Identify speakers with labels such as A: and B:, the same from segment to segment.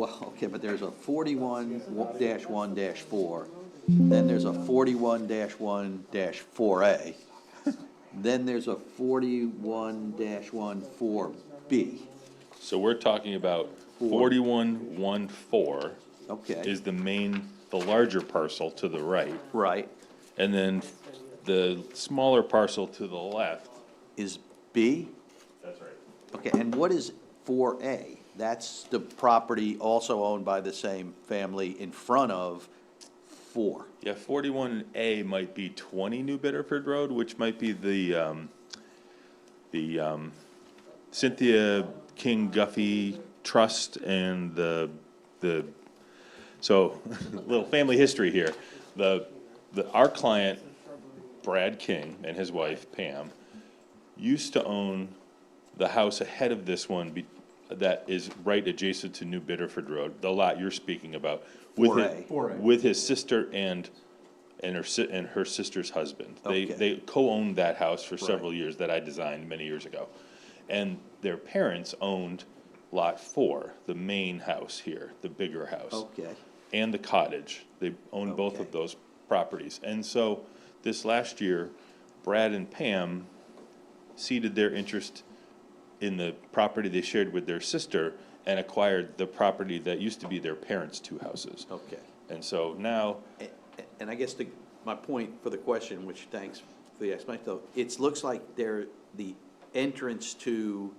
A: Well, okay, but there's a forty-one dash one dash four, then there's a forty-one dash one dash four A, then there's a forty-one dash one four B,
B: So we're talking about forty-one, one, four
A: okay,
B: is the main, the larger parcel to the right.
A: right,
B: And then the smaller parcel to the left.
A: is B?
B: That's right.
A: Okay, and what is four A? That's the property also owned by the same family in front of four.
B: Yeah, forty-one A might be twenty New Bedford Road, which might be the, um, the, um, Cynthia King Guffey Trust and the, the, so, little family history here. The, the, our client, Brad King and his wife Pam, used to own the house ahead of this one be, that is right adjacent to New Bedford Road, the lot you're speaking about. with it-
A: 4A.
B: With his sister and, and her si- and her sister's husband. They,
A: Okay.
B: they co-owned that house for several years that I designed many years ago. And their parents owned lot four, the main house here, the bigger house
A: Okay,
B: and the cottage. They own both
A: Oh. Okay.
B: of those properties. And so this last year, Brad and Pam ceded their interest in the property they shared with their sister and acquired the property that used to be their parents' two houses.
A: okay.
B: And so now,
A: A- a- And I guess the, my point for the question, which thanks for the explanation, though, it looks like there, the entrance to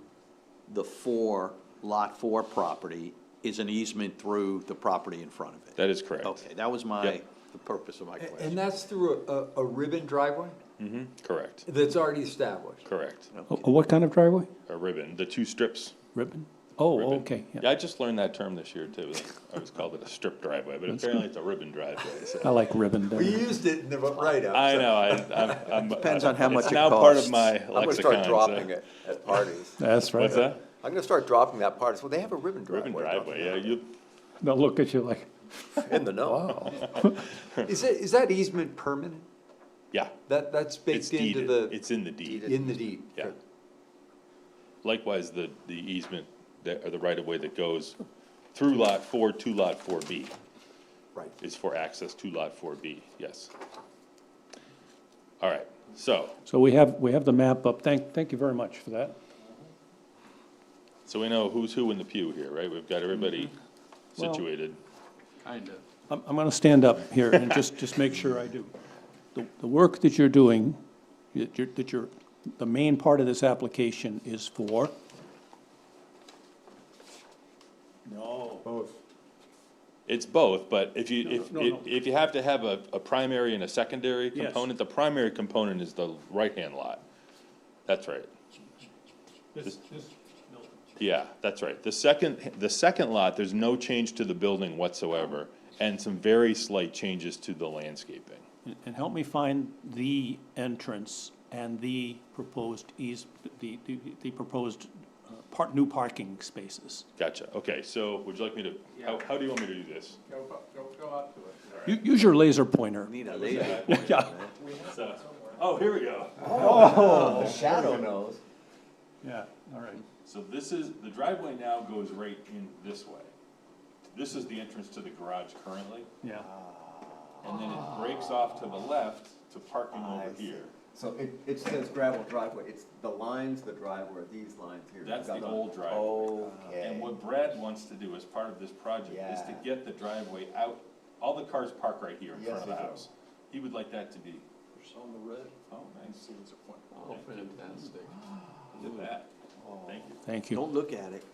A: the four, lot four property is an easement through the property in front of it.
B: that is correct.
A: Okay, that was my,
B: Yep.
A: the purpose of my
C: And
A: question.
C: that's through a, a ribbon driveway
B: hmm correct,
C: that's already established?
B: correct.
A: Oh.
D: A a what kind of driveway?
B: A ribbon, the two strips.
D: Ribbon? Oh,
B: ribbon.
D: okay, yeah.
B: Yeah, I just learned that term this year too. I always called it a strip driveway, but apparently it's a ribbon driveway, so.
D: I like ribbon
C: We
D: better.
C: used it in the write-up.
B: I
C: so
B: know, I, I'm, I'm.
A: Depends on how much
B: It's
A: it
B: now part of
A: costs.
B: my
E: I'm gonna
B: lexicon.
E: start dropping
B: so-
E: it at parties.
D: That's right.
B: What's that?
E: I'm gonna start dropping that part. Well, they have a ribbon driveway.
B: Ribbon
E: don't
B: driveway, yeah, you,
D: They'll look at you like,
E: they? In the know.
C: Is it, is that easement permanent?
B: yeah,
C: That, that's
B: it's
C: baked into
B: deeded,
C: the,
B: it's in the deed,
C: in the deed?
B: yeah. Likewise, the, the easement, that, or the right of way that goes through lot four to lot four B
C: Right.
B: is for access to lot four B, yes. All right, so,
D: so we have, we have the map up. Thank, thank you very much for that.
B: so we know who's who in the pew here, right? We've got everybody
D: Mm-hmm. Well-
B: situated.
D: I'm, I'm gonna stand up here and just, just make sure I do. The, the work that you're doing, that you're, that you're, the main part of this application is for?
B: It's both, but if you, if,
D: no, no.
B: if you have to have a, a primary and a secondary
D: Yes.
B: component, the primary component is the right-hand lot. That's right,
D: This, this.
B: yeah, that's right. The second, the second lot, there's no change to the building whatsoever, and some very slight changes to the landscaping.
D: And help me find the entrance and the proposed eas, the, the, the proposed uh, part, new parking spaces.
B: Gotcha, okay, so would you like me to, how, how do you want me to do this?
D: U- Use your laser pointer.
A: Need a laser.
D: Yeah.
B: So- Oh, here we go.
E: The shadow knows.
D: Yeah, all right.
B: So this is, the driveway now goes right in this way. This is the entrance to the garage currently.
D: Yeah,
B: and then it breaks off to the left to parking
E: I
B: over
E: see.
B: here.
E: So it, it says gravel driveway. It's the lines, the driveway, are these lines here.
B: That's
E: Got
B: the old driveway. And
E: Okay.
B: what Brad wants to do as part of this project is to
E: Yeah.
B: get the driveway out, all the cars park right here in front
E: Yes,
B: of the
E: they do.
B: house. He would like that to be,
F: On the red,
B: oh, nice,
F: oh, fantastic.
B: look at that,
E: Oh.
B: thank you.
D: thank you.
A: Don't look at it.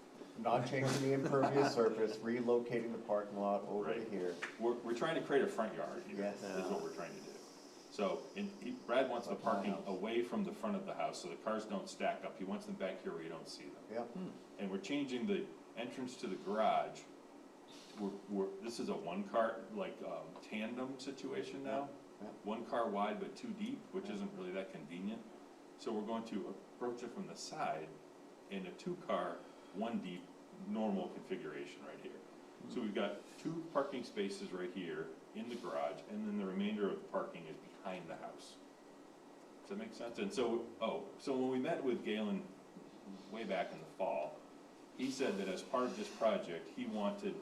E: Not changing the impervious surface, relocating the parking lot over to
B: Right.
E: here.
B: We're, we're trying to create a front yard here,
E: Yes.
B: is what we're trying to do. So, and he, Brad wants the parking away from the front of the house, so the cars don't stack up. He wants them back here where you don't see them.
E: Yep.
B: and we're changing the entrance to the garage. We're, we're, this is a one-car, like, um, tandem situation now.
E: Yeah.
B: One car wide but two deep, which isn't really that convenient. So we're going to approach it from the side in a two-car, one deep, normal configuration right here. So we've got two parking spaces right here in the garage, and then the remainder of the parking is behind the house. Does that make sense? And so, oh, so when we met with Galen way back in the fall, he said that as part of this project, he wanted